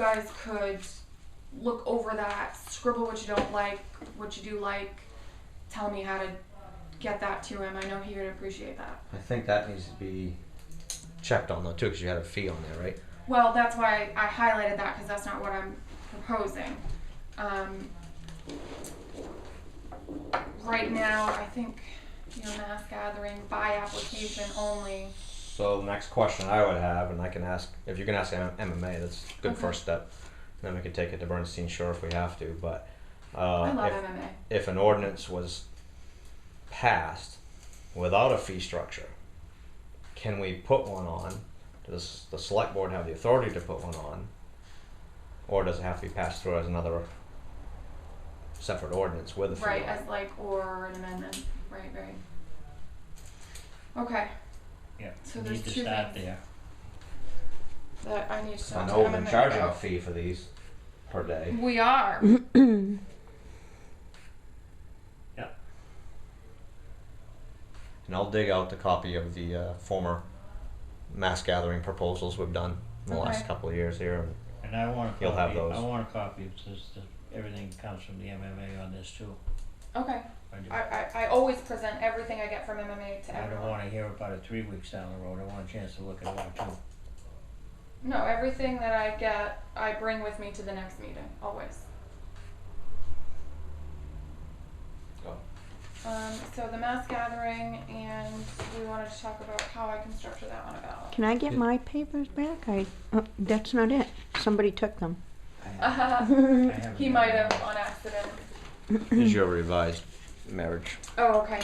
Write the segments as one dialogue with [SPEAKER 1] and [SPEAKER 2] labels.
[SPEAKER 1] guys could look over that, scribble what you don't like, what you do like, tell me how to get that to him. I know he would appreciate that.
[SPEAKER 2] I think that needs to be checked on though too, because you had a fee on there, right?
[SPEAKER 1] Well, that's why I highlighted that because that's not what I'm proposing. Um, right now, I think you know mass gathering by application only.
[SPEAKER 2] So next question I would have, and I can ask if you can ask M- MMA, that's a good
[SPEAKER 1] Okay.
[SPEAKER 2] first step. Then we can take it to Bernstein Shore if we have to. But
[SPEAKER 1] I
[SPEAKER 2] uh,
[SPEAKER 1] love
[SPEAKER 2] if,
[SPEAKER 1] MMA.
[SPEAKER 2] if an ordinance was passed without a fee structure, can we put one on? Does the select board have the authority to put one on, or does it have to be passed through as another separate ordinance with a fee?
[SPEAKER 1] Right,
[SPEAKER 2] on it?
[SPEAKER 1] as like or an amendment. Right, right. Okay,
[SPEAKER 3] Yeah,
[SPEAKER 1] So
[SPEAKER 3] we
[SPEAKER 1] there's
[SPEAKER 3] need to
[SPEAKER 1] two
[SPEAKER 3] start
[SPEAKER 1] things.
[SPEAKER 3] there.
[SPEAKER 1] that I need to.
[SPEAKER 2] I
[SPEAKER 1] talk to
[SPEAKER 2] know we've been
[SPEAKER 1] MMA
[SPEAKER 2] charging a
[SPEAKER 1] about.
[SPEAKER 2] fee for these per day.
[SPEAKER 1] We are.
[SPEAKER 4] Mm-hmm.
[SPEAKER 2] And I'll dig out the copy of the uh, former mass gathering proposals we've done in the last
[SPEAKER 1] Okay.
[SPEAKER 2] couple of years here. And
[SPEAKER 3] And I want a
[SPEAKER 2] You'll have
[SPEAKER 3] copy, I
[SPEAKER 2] those.
[SPEAKER 3] want a copy of this, this, everything comes from the MMA on this too.
[SPEAKER 1] Okay.
[SPEAKER 3] I do.
[SPEAKER 1] I, I, I always present everything I get from MMA to
[SPEAKER 3] I don't
[SPEAKER 1] everyone.
[SPEAKER 3] wanna hear about it three weeks down the road, I want a chance to look at it too.
[SPEAKER 1] No, everything that I get, I bring with me to the next meeting, always.
[SPEAKER 2] Oh.
[SPEAKER 1] Um, so the mass gathering, and we wanted to talk about how I can structure that on a ballot.
[SPEAKER 4] Can I get my papers back? I, oh, that's not it. Somebody took them.
[SPEAKER 1] Uh,
[SPEAKER 3] I haven't
[SPEAKER 1] he
[SPEAKER 3] done
[SPEAKER 1] might
[SPEAKER 3] that.
[SPEAKER 1] have on accident.
[SPEAKER 2] here's your revised marriage.
[SPEAKER 1] Oh, okay.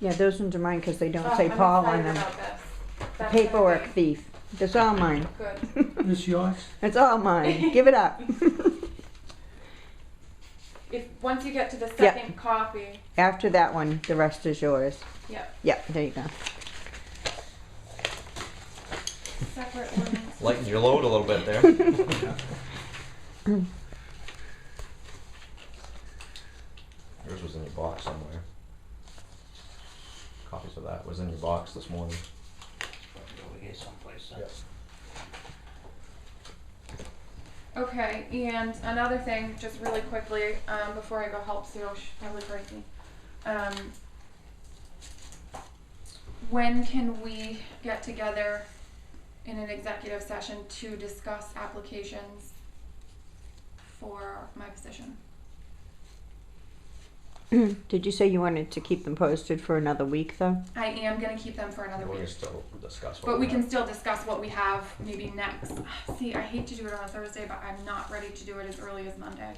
[SPEAKER 4] Yeah, those ones are mine because they don't
[SPEAKER 1] Oh,
[SPEAKER 4] say
[SPEAKER 1] I'm
[SPEAKER 4] Paul on
[SPEAKER 1] excited
[SPEAKER 4] them.
[SPEAKER 1] about this. That's gonna
[SPEAKER 4] Paperwork
[SPEAKER 1] be
[SPEAKER 4] thief. That's all mine.
[SPEAKER 1] Good.
[SPEAKER 5] This yours?
[SPEAKER 4] It's all mine. Give it up.
[SPEAKER 1] If, once you get to the
[SPEAKER 4] Yeah.
[SPEAKER 1] second copy,
[SPEAKER 4] After that one, the rest is yours.
[SPEAKER 1] yeah,
[SPEAKER 4] Yeah, there you go.
[SPEAKER 1] separate ordinance.
[SPEAKER 2] Lighten your load a little bit there. Yours was in your box somewhere. Copies of that was in your box this morning.
[SPEAKER 3] It's probably Over here someplace,
[SPEAKER 2] Yep.
[SPEAKER 1] Okay, and another thing, just really quickly, um, before I go help Sue, she's probably crazy. Um, when can we get together in an executive session to discuss applications for my position?
[SPEAKER 4] Did you say you wanted to keep them posted for another week, though?
[SPEAKER 1] I am gonna keep them for another
[SPEAKER 2] We
[SPEAKER 1] week,
[SPEAKER 2] can still discuss. what
[SPEAKER 1] but we
[SPEAKER 2] want.
[SPEAKER 1] can still discuss what we have maybe next. See, I hate to do it on a Thursday, but I'm not ready to do it as early as Monday,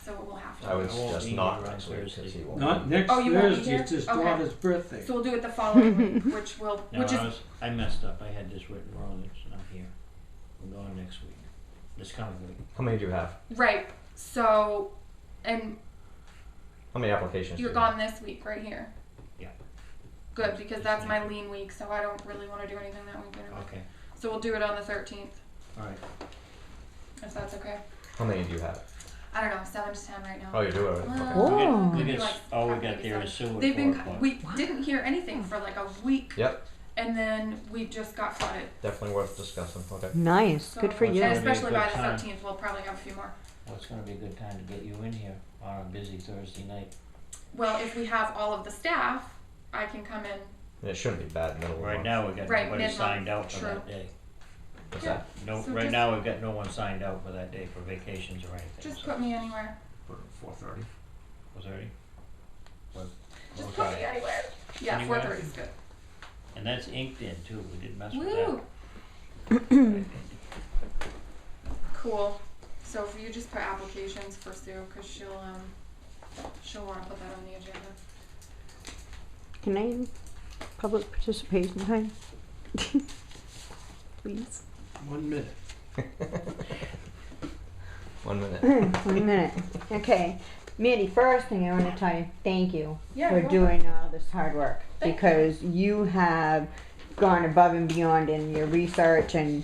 [SPEAKER 1] so we'll have
[SPEAKER 2] I
[SPEAKER 1] to.
[SPEAKER 2] would
[SPEAKER 3] I won't
[SPEAKER 2] suggest
[SPEAKER 3] be
[SPEAKER 2] not
[SPEAKER 3] here on
[SPEAKER 2] next week 'cause
[SPEAKER 3] Thursday.
[SPEAKER 2] he won't.
[SPEAKER 5] Not next
[SPEAKER 1] Oh, you won't be
[SPEAKER 5] Thursday, it's
[SPEAKER 1] here?
[SPEAKER 5] his
[SPEAKER 1] Okay.
[SPEAKER 5] daughter's birthday.
[SPEAKER 1] So we'll do it the following week, which will,
[SPEAKER 3] No,
[SPEAKER 1] which is
[SPEAKER 3] I was, I messed up, I had this written wrong, it's not here. We're going next week, this coming week.
[SPEAKER 2] How many do you have?
[SPEAKER 1] Right. So, and
[SPEAKER 2] How many applications? do
[SPEAKER 1] you're
[SPEAKER 2] you have?
[SPEAKER 1] gone this week, right here.
[SPEAKER 3] Yeah.
[SPEAKER 1] Good, because that's my lean week, so I don't really want to do anything that week anyway.
[SPEAKER 3] Okay,
[SPEAKER 1] So we'll do it on the 13th,
[SPEAKER 3] alright,
[SPEAKER 1] if that's okay.
[SPEAKER 2] How many do you have?
[SPEAKER 1] I don't know, seven to ten right now.
[SPEAKER 2] Oh, you do it.
[SPEAKER 1] Well,
[SPEAKER 2] Okay.
[SPEAKER 4] Oh.
[SPEAKER 1] it
[SPEAKER 3] we
[SPEAKER 1] could be
[SPEAKER 3] get,
[SPEAKER 1] like
[SPEAKER 3] all we
[SPEAKER 1] five,
[SPEAKER 3] got
[SPEAKER 1] maybe
[SPEAKER 3] there is
[SPEAKER 1] seven.
[SPEAKER 3] sewer
[SPEAKER 1] They've been.
[SPEAKER 3] four o'clock.
[SPEAKER 1] We didn't hear anything for like a week,
[SPEAKER 2] Yep,
[SPEAKER 1] and then we just got flooded.
[SPEAKER 2] definitely worth discussing. Okay.
[SPEAKER 4] Nice.
[SPEAKER 1] So-
[SPEAKER 4] Good for
[SPEAKER 1] And
[SPEAKER 3] Yeah.
[SPEAKER 4] you.
[SPEAKER 1] especially by the
[SPEAKER 3] Time.
[SPEAKER 1] 13th, we'll probably have a few more.
[SPEAKER 3] Well, it's gonna be a good time to get you in here on a busy Thursday night.
[SPEAKER 1] Well, if we have all of the staff, I can come in.
[SPEAKER 2] And it shouldn't be bad in the middle of the
[SPEAKER 3] Right
[SPEAKER 2] month.
[SPEAKER 3] now, we've got
[SPEAKER 1] Right,
[SPEAKER 3] nobody
[SPEAKER 1] mid-month,
[SPEAKER 3] signed out for
[SPEAKER 1] true.
[SPEAKER 3] that day.
[SPEAKER 2] What's
[SPEAKER 1] Yeah.
[SPEAKER 2] that?
[SPEAKER 3] No,
[SPEAKER 1] So
[SPEAKER 3] right
[SPEAKER 1] just-
[SPEAKER 3] now, we've got no one signed out for that day for vacations or anything,
[SPEAKER 1] Just
[SPEAKER 3] so.
[SPEAKER 1] put me anywhere.
[SPEAKER 2] Four thirty.
[SPEAKER 3] Was already?
[SPEAKER 1] Just put me anywhere. Yeah,
[SPEAKER 3] Anywhere.
[SPEAKER 1] 4:30 is good.
[SPEAKER 3] And that's inked in too, we didn't mess with that.
[SPEAKER 1] Woo! Cool. So if you just put applications for Sue, cause she'll, um, she'll wanna put that on the agenda.
[SPEAKER 4] Can I public participation time? Please.
[SPEAKER 5] One minute.
[SPEAKER 2] One minute.
[SPEAKER 4] One minute. Okay. Mandy, first thing I want to tell you, thank you.
[SPEAKER 1] Yeah,
[SPEAKER 4] for
[SPEAKER 1] you're
[SPEAKER 4] doing all this hard work
[SPEAKER 1] Thank you.
[SPEAKER 4] because you have gone above and beyond in your research and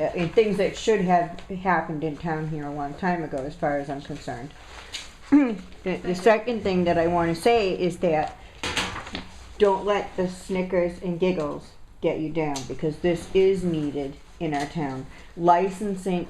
[SPEAKER 4] uh, in things that should have happened in town here a long time ago, as far as I'm concerned. the, the
[SPEAKER 1] you.
[SPEAKER 4] second thing that I want to say is that don't let the snickers and giggles get you down because this is needed in our town. Licensing